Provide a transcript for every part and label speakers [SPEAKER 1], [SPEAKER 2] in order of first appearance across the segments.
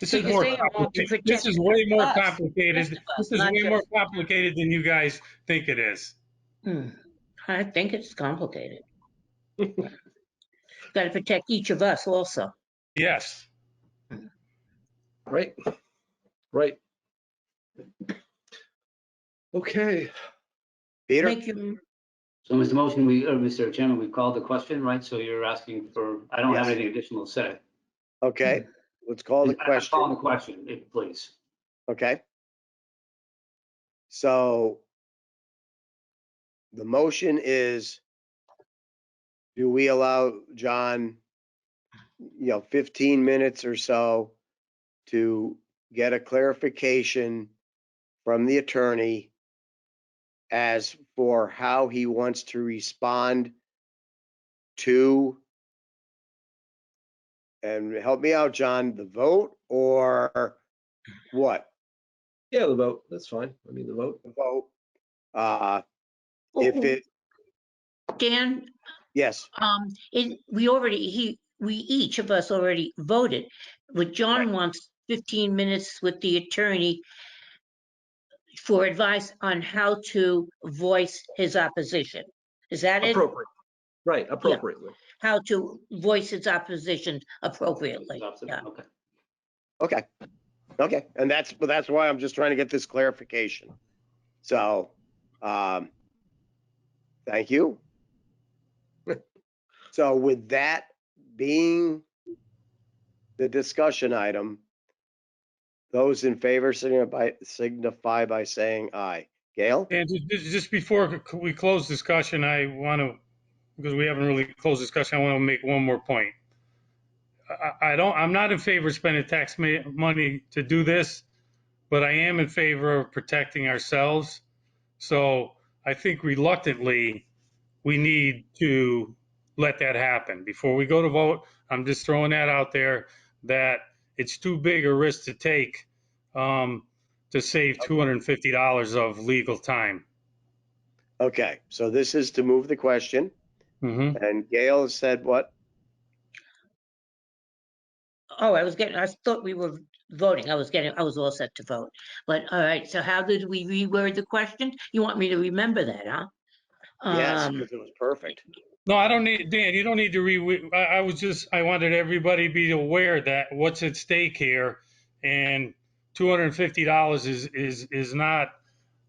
[SPEAKER 1] This
[SPEAKER 2] So
[SPEAKER 1] is
[SPEAKER 2] you're
[SPEAKER 1] more,
[SPEAKER 2] saying all these
[SPEAKER 1] complicated. this
[SPEAKER 2] against
[SPEAKER 1] is way more
[SPEAKER 2] us,
[SPEAKER 1] complicated.
[SPEAKER 2] rest of us,
[SPEAKER 1] This is
[SPEAKER 2] not
[SPEAKER 1] way more
[SPEAKER 2] just-
[SPEAKER 1] complicated than you guys think it is.
[SPEAKER 2] Hmm. I think it's complicated. Got to protect each of us also.
[SPEAKER 1] Yes.
[SPEAKER 3] Right, right. Okay,
[SPEAKER 4] Peter,
[SPEAKER 2] Make your,
[SPEAKER 5] So, Mr. Motion, we, or Mr. Chairman, we called the question, right? So you're asking for, I don't have
[SPEAKER 4] Yes.
[SPEAKER 5] anything additional to say.
[SPEAKER 4] okay, let's call the
[SPEAKER 5] I- I'm calling the
[SPEAKER 4] question,
[SPEAKER 5] question, if- please.
[SPEAKER 4] okay? So the motion is, do we allow John, you know, 15 minutes or so to get a clarification from the attorney as for how he wants to respond to and help me out, John, the vote or what?
[SPEAKER 3] yeah, the vote, that's fine. I mean, the vote,
[SPEAKER 4] The vote. Uh, if it,
[SPEAKER 2] Dan,
[SPEAKER 4] yes,
[SPEAKER 2] um, it, we already, he, we, each of us already voted. What John wants, 15 minutes with the attorney for advice on how to voice his opposition. Is that it?
[SPEAKER 3] appropriate, right, appropriately.
[SPEAKER 2] How to voice his opposition appropriately. Yeah.
[SPEAKER 5] Okay.
[SPEAKER 4] okay, okay. And that's, but that's why I'm just trying to get this clarification. So, um, thank you. So with that being the discussion item, those in favor signify, signify by saying aye. Gail?
[SPEAKER 1] And ju- ju- just before c- we close discussion, I want to, because we haven't really closed discussion, I want to make one more point. I- I I don't, I'm not in favor of spending tax ma- money to do this, but I am in favor of protecting ourselves. So I think reluctantly, we need to let that happen. Before we go to vote, I'm just throwing that out there, that it's too big a risk to take um, to save $250 of legal time.
[SPEAKER 4] Okay, so this is to move the question,
[SPEAKER 1] Mhm.
[SPEAKER 4] and Gail has said what?
[SPEAKER 2] Oh, I was getting, I thought we were voting. I was getting, I was all set to vote. But all right, so how did we reword the question? You want me to remember that, huh?
[SPEAKER 4] Yes,
[SPEAKER 2] Um,
[SPEAKER 4] because it was perfect.
[SPEAKER 1] No, I don't need, Dan, you don't need to re, I, I was just, I wanted everybody to be aware that what's at stake here and $250 is, is, is not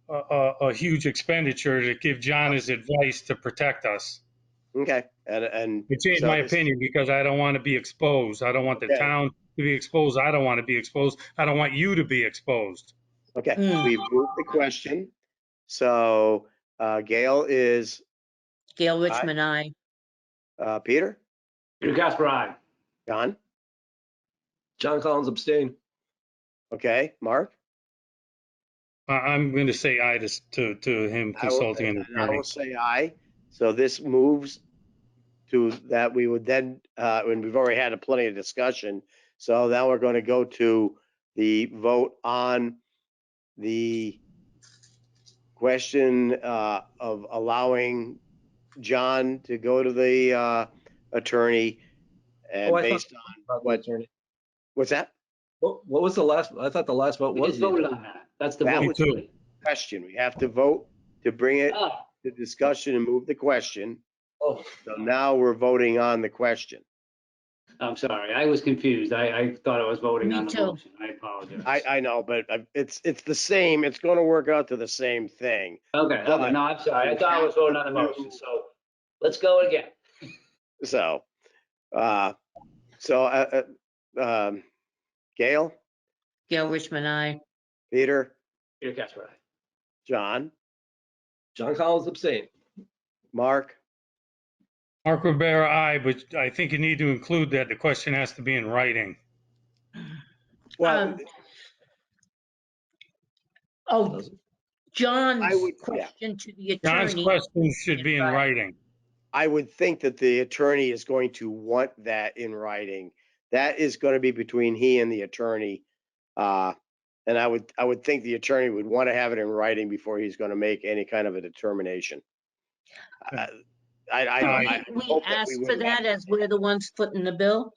[SPEAKER 1] a, a, a huge expenditure to give John his advice to protect us.
[SPEAKER 4] Okay, and, and.
[SPEAKER 1] It changed
[SPEAKER 4] so
[SPEAKER 1] my
[SPEAKER 4] this-
[SPEAKER 1] opinion because I don't want to be exposed. I don't want the
[SPEAKER 4] Okay.
[SPEAKER 1] town to be exposed. I don't want to be exposed. I don't want you to be exposed.
[SPEAKER 4] Okay,
[SPEAKER 2] Hmm.
[SPEAKER 4] we've moved the question. So uh, Gail is,
[SPEAKER 2] Gail Richmond, I.
[SPEAKER 4] uh, Peter,
[SPEAKER 5] Peter Casper, aye.
[SPEAKER 4] John,
[SPEAKER 3] John Collins abstain.
[SPEAKER 4] okay, Mark?
[SPEAKER 1] I, I'm going to say I just to, to him
[SPEAKER 4] I will-
[SPEAKER 1] consulting an
[SPEAKER 4] and I
[SPEAKER 1] attorney.
[SPEAKER 4] will say aye. So this moves to that we would then, uh, and we've already had a plenty of discussion. So now we're going to go to the vote on the question, uh, of allowing John to go to the, uh, attorney and
[SPEAKER 3] Oh, I thought-
[SPEAKER 4] based on, What?
[SPEAKER 3] Attorney.
[SPEAKER 4] what's that?
[SPEAKER 3] What, what was the last, I thought the last vote
[SPEAKER 5] We
[SPEAKER 3] was.
[SPEAKER 5] just
[SPEAKER 3] the
[SPEAKER 5] voted
[SPEAKER 3] attorney.
[SPEAKER 5] on that. That's the
[SPEAKER 4] That
[SPEAKER 5] vote.
[SPEAKER 1] was- Me too.
[SPEAKER 4] Question. We have to vote to bring it
[SPEAKER 5] Ah,
[SPEAKER 4] to discussion and move the question.
[SPEAKER 3] Oh,
[SPEAKER 4] So now we're voting on the question.
[SPEAKER 5] I'm sorry, I was confused. I, I thought I was voting
[SPEAKER 2] Me
[SPEAKER 5] on the
[SPEAKER 2] too.
[SPEAKER 5] motion. I apologize.
[SPEAKER 4] I, I know, but I- it's, it's the same, it's gonna work out to the same thing.
[SPEAKER 5] Okay, okay, no, I'm sorry. I thought I was voting on the motion, so let's go again.
[SPEAKER 4] So, uh, so, uh, uh, um, Gail,
[SPEAKER 2] Gail Richmond, I.
[SPEAKER 4] Peter,
[SPEAKER 5] Peter Casper, aye.
[SPEAKER 4] John,
[SPEAKER 3] John Collins abstain.
[SPEAKER 4] Mark,
[SPEAKER 1] Mark Rivera, aye, but I think you need to include that the question has to be in writing.
[SPEAKER 4] well,
[SPEAKER 2] Um, Oh,
[SPEAKER 3] Doesn't-
[SPEAKER 2] John's
[SPEAKER 4] would- yeah.
[SPEAKER 2] question to the
[SPEAKER 1] John's
[SPEAKER 2] attorney.
[SPEAKER 1] questions should be in
[SPEAKER 2] Right.
[SPEAKER 1] writing.
[SPEAKER 4] I would think that the attorney is going to want that in writing. That is gonna be between he and the attorney. Uh, and I would, I would think the attorney would wanna have it in writing before he's gonna make any kind of a determination. Uh, I, I.
[SPEAKER 1] Uh,
[SPEAKER 4] I
[SPEAKER 2] We we
[SPEAKER 4] hope that
[SPEAKER 2] asked for
[SPEAKER 4] wouldn't have
[SPEAKER 2] that as we're the ones footing the bill.